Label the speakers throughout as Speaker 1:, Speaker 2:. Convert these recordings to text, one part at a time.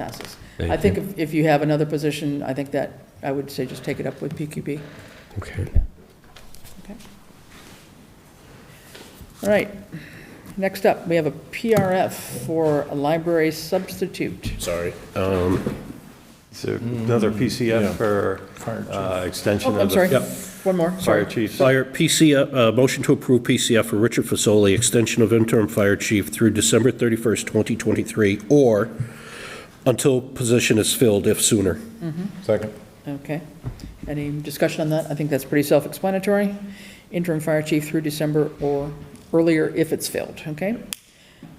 Speaker 1: passes.
Speaker 2: Thank
Speaker 1: I think
Speaker 2: you.
Speaker 1: if if you have another position, I think that, I would say just take it up with PQB.
Speaker 2: Okay.
Speaker 1: All right. Next up, we have a PRF for a library substitute.
Speaker 2: Sorry.
Speaker 3: So another PCF for uh, extension
Speaker 1: Oh,
Speaker 3: of
Speaker 1: I'm sorry.
Speaker 3: the
Speaker 1: One more,
Speaker 3: fire
Speaker 1: sorry.
Speaker 3: chiefs.
Speaker 2: Fire PCF, uh, motion to approve PCF for Richard Fasoli, extension of interim fire chief through December 31st, 2023, or until position is filled, if sooner.
Speaker 4: Second.
Speaker 1: Okay. Any discussion on that? I think that's pretty self-explanatory. Interim fire chief through December or earlier if it's filled, okay?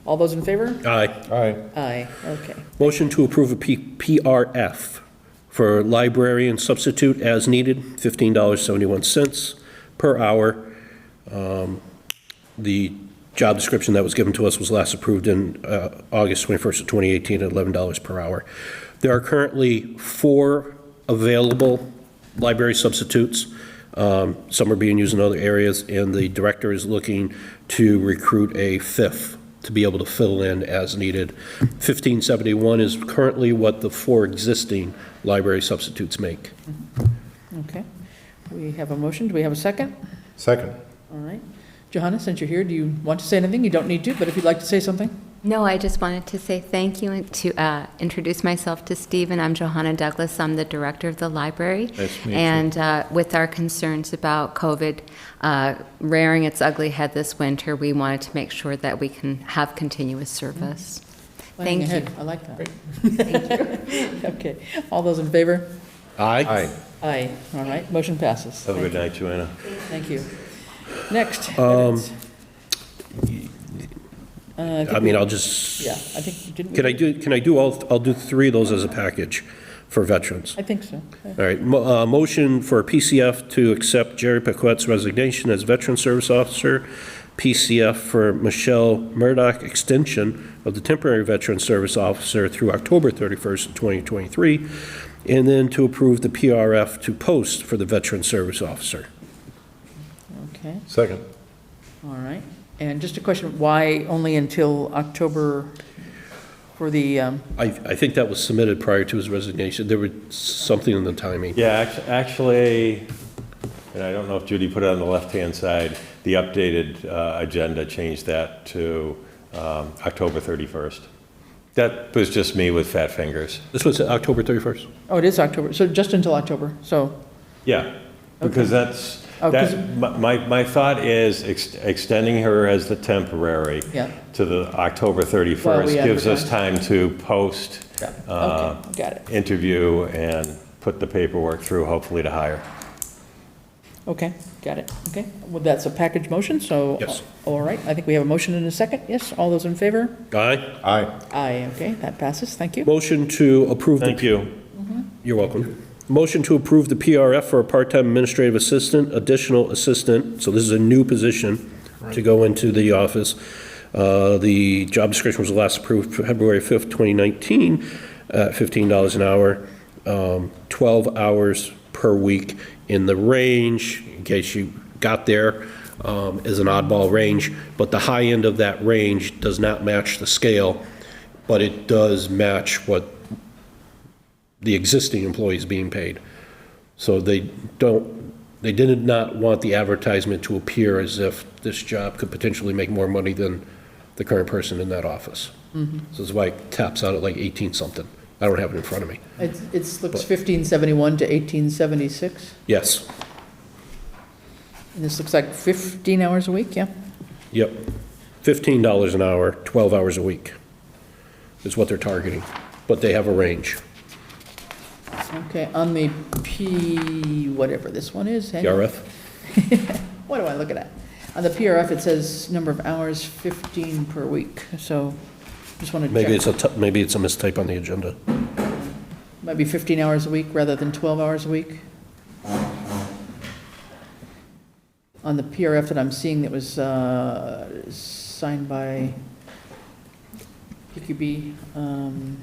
Speaker 1: All those in favor?
Speaker 2: Aye.
Speaker 4: Aye.
Speaker 1: Aye, okay.
Speaker 2: Motion to approve a P- PRF for librarian substitute as needed, $15.71 per hour. Um, The job description that was given to us was last approved in uh, August 21st of 2018 at $11 per hour. There are currently four available library substitutes. Um, Some are being used in other areas, and the director is looking to recruit a fifth to be able to fill in as needed. 1571 is currently what the four existing library substitutes make.
Speaker 1: Okay. We have a motion. Do we have a second?
Speaker 4: Second.
Speaker 1: All right. Johanna, since you're here, do you want to say anything? You don't need to, but if you'd like to say something?
Speaker 5: No, I just wanted to say thank you and to uh, introduce myself to Steve, and I'm Johanna Douglas. I'm the director of the library.
Speaker 4: Nice to meet you.
Speaker 5: And uh, with our concerns about COVID uh, rearing its ugly head this winter, we wanted to make sure that we can have continuous service.
Speaker 1: Planning
Speaker 5: Thank
Speaker 1: ahead. I like that. Okay. All those in favor?
Speaker 4: Aye.
Speaker 1: Aye. All right. Motion passes.
Speaker 3: Have a good night, Joanna.
Speaker 1: Thank you. Next.
Speaker 2: Um,
Speaker 1: minutes. Uh, think
Speaker 2: I mean,
Speaker 1: we-
Speaker 2: I'll just,
Speaker 1: Yeah, I think, didn't we?
Speaker 2: can I do, can I do all, I'll do three of those as a package for veterans.
Speaker 1: I think so.
Speaker 2: All right, mo- uh, motion for PCF to accept Jerry Paquette's resignation as Veteran Service Officer, PCF for Michelle Murdock, extension of the temporary Veteran Service Officer through October 31st, 2023, and then to approve the PRF to post for the Veteran Service Officer.
Speaker 1: Okay,
Speaker 4: Second.
Speaker 1: all right. And just a question, why only until October for the, um,
Speaker 2: I, I think that was submitted prior to his resignation. There was something in the timing.
Speaker 3: Yeah, act- actually, and I don't know if Judy put it on the left-hand side, the updated uh, agenda changed that to um, October 31st. That was just me with fat fingers.
Speaker 2: This was October 31st?
Speaker 1: oh, it is October, so just until October, so,
Speaker 3: Yeah, because that's,
Speaker 1: Oh, 'cause-
Speaker 3: that, my- my, my thought is ex- extending her as the temporary
Speaker 1: Yeah.
Speaker 3: to the October 31st gives us time to post,
Speaker 1: yeah,
Speaker 3: uh,
Speaker 1: okay, got it.
Speaker 3: interview, and put the paperwork through, hopefully to hire.
Speaker 1: Okay, got it, okay. Well, that's a package motion, so.
Speaker 2: Yes.
Speaker 1: All right, I think we have a motion and a second, yes, all those in favor?
Speaker 2: Aye.
Speaker 4: Aye.
Speaker 1: Aye, okay, that passes, thank you.
Speaker 2: Motion to approve the
Speaker 3: Thank you.
Speaker 2: You're welcome. Motion to approve the PRF for a part-time administrative assistant, additional assistant, so this is a new position to go into the office. Uh, The job description was last approved February 5th, 2019, at $15 an hour, um, 12 hours per week in the range, in case you got there, um, is an oddball range, but the high end of that range does not match the scale, but it does match what the existing employees being paid. So they don't, they did not want the advertisement to appear as if this job could potentially make more money than the current person in that office. So that's why it taps out at like 18-something. I don't have it in front of me.
Speaker 1: It's, it's, looks fifteen seventy-one to eighteen seventy-six,
Speaker 2: Yes,
Speaker 1: and this looks like fifteen hours a week, yeah?
Speaker 2: yep. $15 an hour, 12 hours a week is what they're targeting, but they have a range.
Speaker 1: Okay, on the P, whatever this one is. hang on.
Speaker 2: PRF?
Speaker 1: What do I look at? On the PRF, it says number of hours 15 per week, so just want to check.
Speaker 2: Maybe it's a, t- maybe it's a mistype on the agenda.
Speaker 1: Might be 15 hours a week rather than 12 hours a week. On the PRF that I'm seeing that was uh, signed by PQB, um,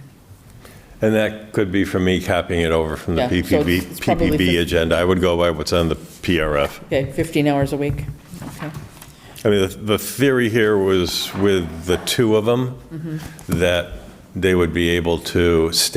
Speaker 3: And that could be from me copying it over from the
Speaker 1: Yeah, so it's-
Speaker 3: PPB,
Speaker 1: it's probably
Speaker 3: PPB
Speaker 1: fif-
Speaker 3: agenda. I would go by what's on the PRF.
Speaker 1: okay, 15 hours a week, okay. Mm-hmm.
Speaker 3: I mean, the- the theory here was with the two of them, that they would be able to stay